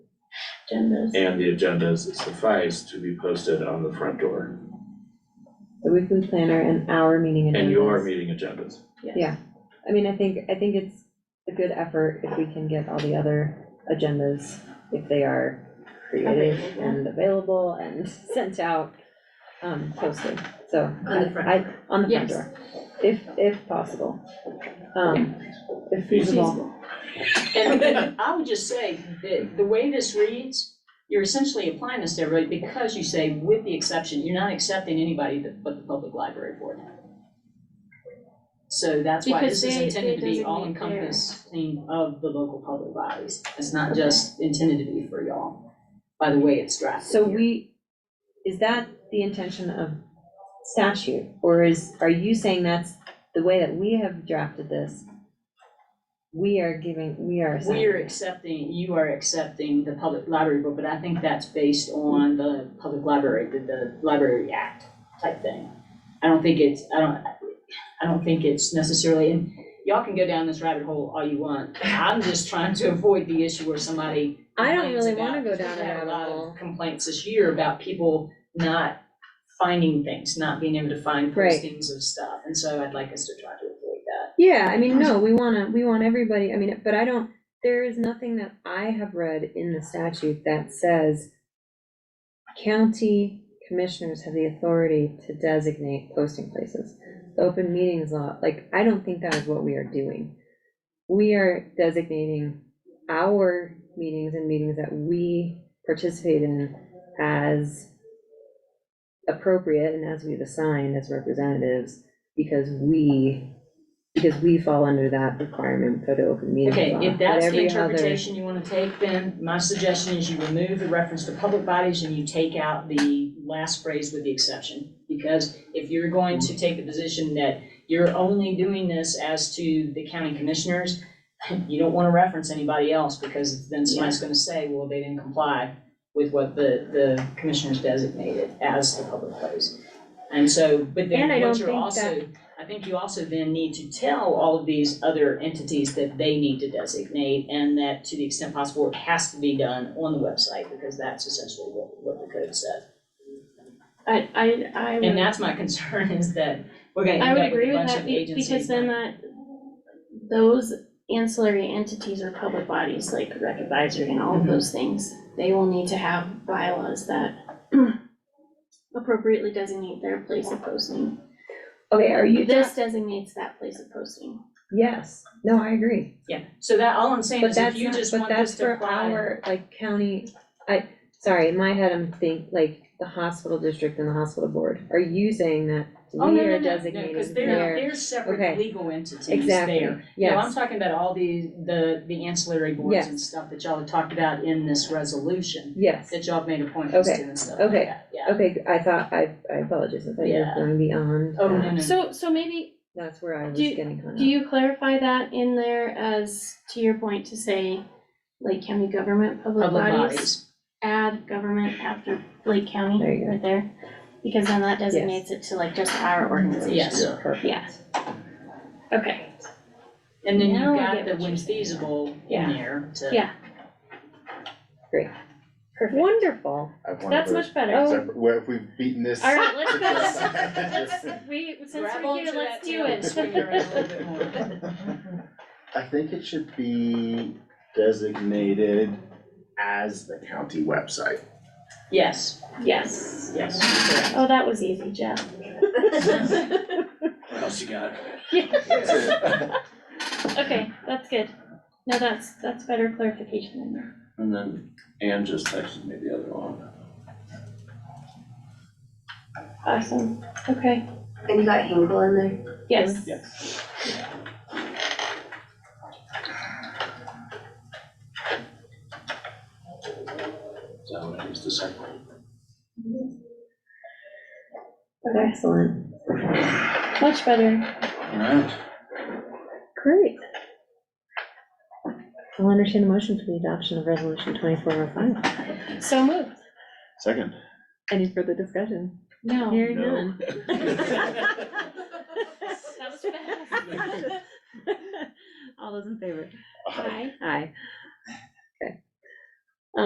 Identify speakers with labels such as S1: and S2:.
S1: agendas.
S2: and the agendas suffice to be posted on the front door
S3: the weekly planner and our meeting agendas.
S2: and your meeting agendas.
S3: Yeah, I mean, I think, I think it's a good effort if we can get all the other agendas, if they are created
S1: Available.
S3: and available and sent out, um, posted, so.
S1: On the front
S3: I- On the
S1: Yes.
S3: front door, if, if possible, um, if feasible.
S4: And and I would just say, that the way this reads, you're essentially applying this to everybody because you say, with the exception, you're not accepting anybody that- but the public library board. So that's why
S1: Because
S4: this is
S1: they-
S4: intended to
S1: they
S4: be
S1: designate
S4: all encompassing of the local public bodies. It's not just intended to be for y'all, by the way it's drafted
S3: So
S4: here.
S3: we, is that the intention of statute, or is, are you saying that's the way that we have drafted this? We are giving, we are assigning.
S4: We are accepting, you are accepting the public library book, but I think that's based on the public library, the, the library act type thing. I don't think it's, I don't, I don't think it's necessarily, and y'all can go down this rabbit hole all you want. I'm just trying to avoid the issue where somebody
S3: I don't
S4: complains
S3: really
S4: about-
S3: wanna go
S4: we've
S3: down a
S4: had
S3: rabbit
S4: lot of
S3: hole.
S4: Complaints this year about people not finding things, not being able to find
S3: Right.
S4: postings of stuff, and so I'd like us to try to avoid that.
S3: Yeah, I mean, no, we wanna, we want everybody, I mean, but I don't, there is nothing that I have read in the statute that says county commissioners have the authority to designate posting places. The Open meetings law, like, I don't think that is what we are doing. We are designating our meetings and meetings that we participate in as appropriate and as we've assigned as representatives, because we because we fall under that requirement, go to open meetings
S4: Okay,
S3: law.
S4: if
S3: but
S4: that's the
S3: every other-
S4: interpretation you wanna take, then my suggestion is you remove the reference to public bodies and you take out the last phrase with the exception. Because if you're going to take the position that you're only doing this as to the county commissioners, you don't wanna reference anybody else, because then somebody's gonna say, well, they didn't comply with what the, the commissioners designated as the public place. And so, but then
S3: And I
S4: what
S3: don't
S4: you're
S3: think
S4: also, I think you also then need to tell all of these other entities that they need to designate and that to the extent possible, it has to be done on the website because that's essentially what, what the code says.
S1: I, I, I
S4: And
S1: would,
S4: that's my concern is that we're gonna
S1: I
S4: end
S1: would
S4: up with
S1: agree
S4: a
S1: with
S4: bunch
S1: that
S4: of
S1: be-
S4: agencies.
S1: because then that, those ancillary entities or public bodies like rec advisory and all of
S4: Mhm.
S1: those things, they will need to have bylaws that appropriately designate their place of posting.
S3: Okay, are you,
S1: This designates that place of posting.
S3: yes, no, I agree,
S4: Yeah, so that, all I'm saying
S3: but
S4: is if
S3: that's
S4: you
S3: not,
S4: just
S3: but
S4: want
S3: that's
S4: this to
S3: for
S4: apply.
S3: our, like, county, I, sorry, in my head, I'm think, like, the hospital district and the hospital board, are you saying that
S4: Oh, no,
S3: we
S4: no,
S3: are
S4: no, no, because
S3: designating
S4: they're,
S3: their,
S4: they're separate
S3: okay.
S4: legal entities there.
S3: exactly,
S4: No, I'm
S3: yes,
S4: talking about all the, the, the ancillary boards and
S3: Yes.
S4: stuff that y'all have talked about in this resolution,
S3: yes,
S4: that y'all have made appointments to
S3: Okay,
S4: and stuff like
S3: okay,
S4: that, yeah.
S3: okay, I thought, I, I apologize, I thought you were
S4: Yeah.
S3: going beyond,
S4: Oh, no, no, no.
S1: So, so maybe,
S3: that's where I was
S1: Do you-
S3: getting hung
S1: do
S3: up,
S1: you clarify that in there as, to your point, to say Lake County government, public
S4: public
S1: bodies?
S4: bodies.
S1: add government after Lake
S3: There you
S1: County
S3: go.
S1: right there, because then that designates it to like just our organization.
S4: Yes.
S3: perfect.
S1: Yeah. Okay,
S4: And then
S1: Now
S4: you've
S1: I
S4: got
S1: get
S4: the
S1: what
S4: when
S1: you're saying.
S4: feasible in
S1: Yeah.
S4: there to.
S1: Yeah. perfect.
S3: Wonderful,
S5: I have one
S1: That's
S5: for-
S1: much better.
S3: Oh.
S5: Sorry, Where if we've beaten this.
S1: All right, let's go.
S5: Yes.
S1: Let's, we, since
S4: Grab
S1: we're
S4: onto
S1: here,
S4: that
S1: let's do
S4: too, just swing around a little
S1: it.
S4: bit more.
S5: I think it should be designated as the county website.
S4: Yes,
S1: Yes.
S4: yes, correct.
S1: Oh, that was easy, Jeff.
S2: What else you got?
S1: Okay, that's good. No, that's, that's better clarification in there.
S6: And then Ann just texted me the other one.
S1: Awesome, okay,
S7: And you got Hinkle in there?
S1: yes.
S6: So it's the second one.
S1: Okay,
S3: excellent,
S1: much better.
S6: All right,
S3: great. I'll entertain a motion for the adoption of resolution twenty-four oh five.
S1: So moved.
S5: Second.
S3: Any further discussion?
S1: No.
S3: Hearing
S5: No.
S3: none.
S1: That was fast.
S3: All those in favor?
S1: Hi.
S3: Aye.